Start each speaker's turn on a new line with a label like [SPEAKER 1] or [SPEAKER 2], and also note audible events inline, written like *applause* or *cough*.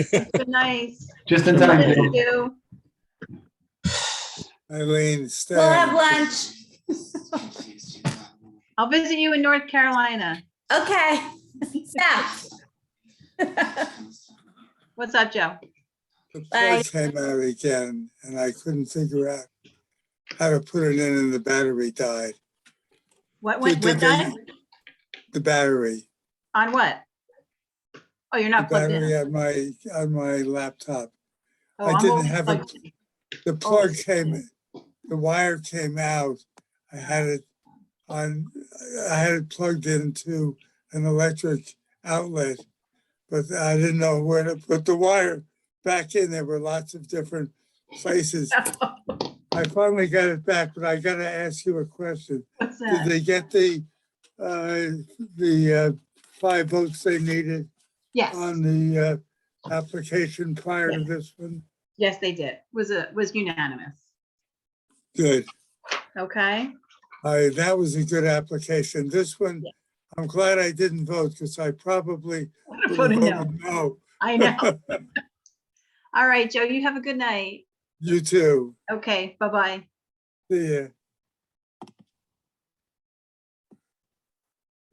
[SPEAKER 1] Good night.
[SPEAKER 2] Just in time.
[SPEAKER 1] Thank
[SPEAKER 2] Dave.
[SPEAKER 1] you.
[SPEAKER 3] Eileen,
[SPEAKER 4] We'll have
[SPEAKER 3] stay.
[SPEAKER 4] lunch.
[SPEAKER 1] I'll visit you in North Carolina.
[SPEAKER 4] Okay. *laughs* Steph. *laughs*
[SPEAKER 1] What's up, Joe?
[SPEAKER 3] The
[SPEAKER 4] Bye.
[SPEAKER 3] poor came out again, and I couldn't figure out how to put it in and the battery died.
[SPEAKER 1] What went, what died?
[SPEAKER 3] The battery,
[SPEAKER 1] On what? Oh, you're
[SPEAKER 3] the
[SPEAKER 1] not plugged
[SPEAKER 3] battery
[SPEAKER 1] in.
[SPEAKER 3] on my, on my laptop.
[SPEAKER 1] Oh,
[SPEAKER 3] uh, I
[SPEAKER 1] I'm
[SPEAKER 3] didn't
[SPEAKER 1] always
[SPEAKER 3] have it.
[SPEAKER 1] plugged in. *laughs*
[SPEAKER 4] Oh,
[SPEAKER 3] The plug came, the wire came out. I had it on, I had it plugged into an electric outlet, but I didn't know where to put the wire back in. There were lots of different places. I finally got it back, but I gotta ask you a question.
[SPEAKER 1] What's
[SPEAKER 3] Did
[SPEAKER 1] that?
[SPEAKER 3] they get the, uh, the uh, five votes they needed
[SPEAKER 1] Yes,
[SPEAKER 3] on the uh, application prior to this one?
[SPEAKER 1] yes, they did. Was a, was unanimous.
[SPEAKER 3] Good.
[SPEAKER 1] Okay? *laughs*
[SPEAKER 3] I, that was a good application. This one,
[SPEAKER 1] Yeah.
[SPEAKER 3] I'm glad I didn't vote because I probably would have
[SPEAKER 1] Voted no.
[SPEAKER 3] voted no.
[SPEAKER 1] I
[SPEAKER 3] *laughs*
[SPEAKER 1] know. All right, Joe, you have a good night.
[SPEAKER 3] You too.
[SPEAKER 1] Okay, bye-bye.
[SPEAKER 3] See ya.